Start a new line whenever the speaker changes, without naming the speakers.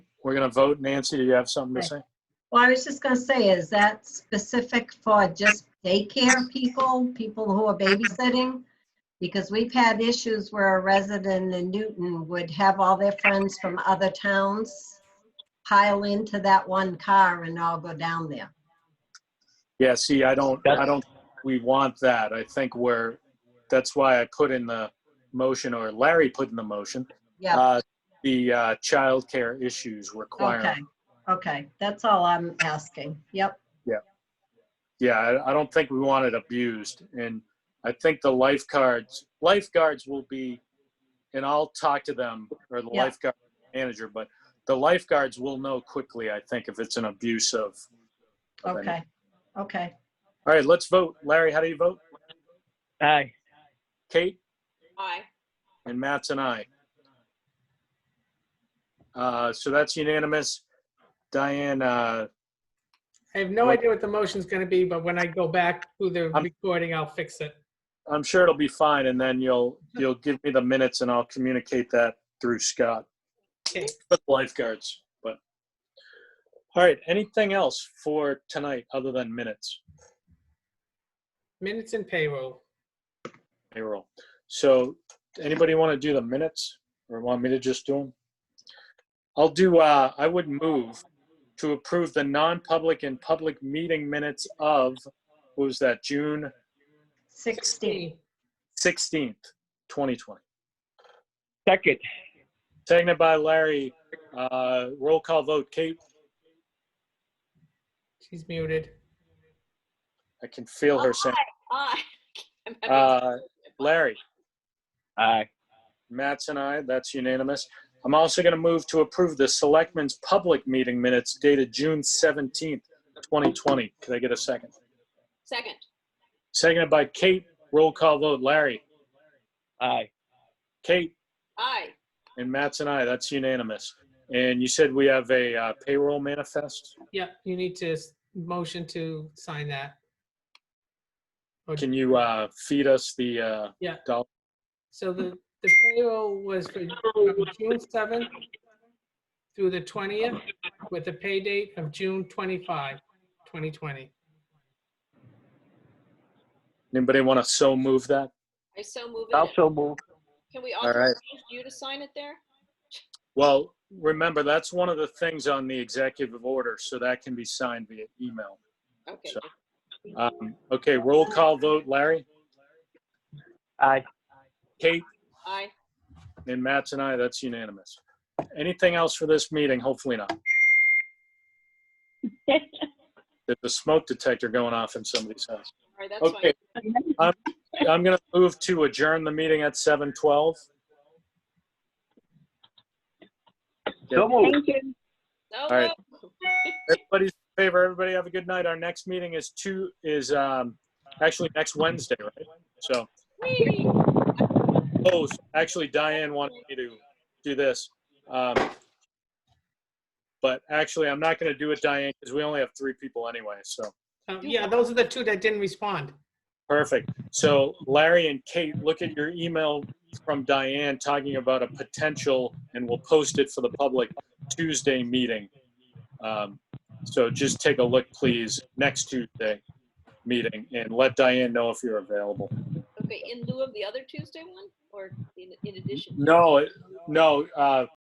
We're going to vote. Nancy, do you have something to
Right.
say?
Well, I was just gonna say, is that specific for just daycare people, people who are babysitting? Because we've had issues where a resident in Newton would have all their friends from other towns pile into that one car and all go down there.
Yeah, see, I don't, I
That's-
don't, we want that. I think we're, that's why I put in the motion, or Larry put in the motion,
Yeah,
uh, the uh, childcare issues
okay,
requirement.
okay, that's all I'm asking, yep.
Yeah, I, I don't think we want it abused. And I think the lifeguards, lifeguards will be, and I'll talk to them, or the
Yeah.
lifeguard manager, but the lifeguards will know quickly, I think, if it's an abuse of. of any-
Okay, okay.
All right, let's vote. Larry, how do you vote?
Aye.
Kate?
Aye.
And Matt's an aye. Uh, So that's unanimous. Diane, uh,
I have no
Right.
idea what the motion's gonna be, but when I go back to the
I'm-
recording, I'll fix it.
I'm sure it'll be fine, and then you'll, you'll give me the minutes and I'll communicate that through Scott.
Okay.
But Lifeguards, but. All right, anything else for tonight other than minutes?
Minutes and payroll.
Payroll. So anybody want to do the minutes or want me to just do them? I'll do, uh, I would move to approve the non-public and public meeting minutes of, what was that, June
16,
sixteenth, twenty twenty.
Second.
Seconded by Larry. Uh, roll call vote. Kate,
She's muted.
I can feel her saying.
Aye. I'm having-
Uh, Larry,
Aye.
Matt's and I, that's unanimous. I'm also going to move to approve the selectmen's public meeting minutes dated June seventeenth, twenty twenty. Could I get a second?
Second.
Seconded by Kate. Roll call vote. Larry,
Aye.
Kate,
Aye.
and Matt's and I, that's unanimous. And you said we have a uh, payroll manifest?
Yep, you need to s- motion to sign that. Or-
Can you, uh, feed us the, uh,
So the, the payroll was for from June 7th through the 20th with a pay date of June 25, 2020.
anybody want to so move that?
I so move it.
Also move.
Can we
All right.
authorize you to sign it there?
Well, remember, that's one of the things on the executive order, so that can be signed via email.
Okay.
So- Um, Okay, roll call vote, Larry,
Aye.
Kate,
Aye.
and Matt's and I, that's unanimous. Anything else for this meeting? Hopefully not. There's a smoke detector going off in somebody's house.
All right, that's fine.
Okay. I'm I'm gonna move to adjourn the meeting at 7:12.
So move.
So
right.
moved.
Everybody's in favor, everybody have a good night. Our next meeting is two, is, um, actually next Wednesday, right? So.
Whee!
Oh, actually Diane wanted me to do this. Um, But actually, I'm not going to do it, Diane, because we only have three people anyway, so,
Uh, Yeah, those are the two that didn't respond.
perfect. So Larry and Kate, look at your email from Diane talking about a potential, and we'll post it for the public Tuesday meeting. Um, So just take a look, please, next Tuesday meeting, and let Diane know if you're available.
Okay, in lieu of the other Tuesday one or in in addition?
No, it- no, uh,